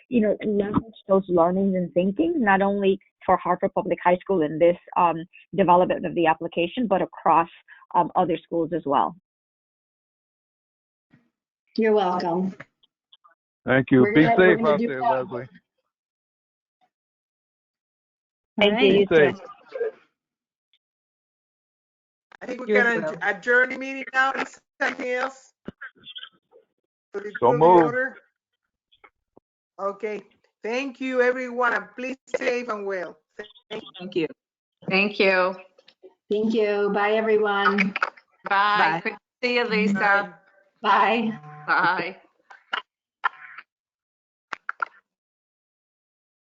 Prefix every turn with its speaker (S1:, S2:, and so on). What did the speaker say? S1: you know, leverage those learnings and thinking, not only for Hartford Public High School in this um, development of the application, but across um, other schools as well.
S2: You're welcome.
S3: Thank you.
S2: We're
S3: Be
S2: gonna- we're
S3: safe
S2: gonna
S3: out
S2: do
S3: there,
S2: that.
S3: Leslie.
S1: Thank
S2: All
S1: you.
S3: Be
S2: right.
S1: You too.
S3: safe.
S4: I think
S5: You
S4: we're
S5: as
S4: gonna adjourn the meeting now, is there anything else? For the
S3: So
S4: good of the
S3: moved.
S4: order? Okay, thank you, everyone, and please safe and well.
S5: Thank you. Thank you.
S2: Thank you. Bye, everyone.
S5: Bye.
S2: Bye.
S5: Good to See you, Lisa.
S2: Bye.
S5: Bye.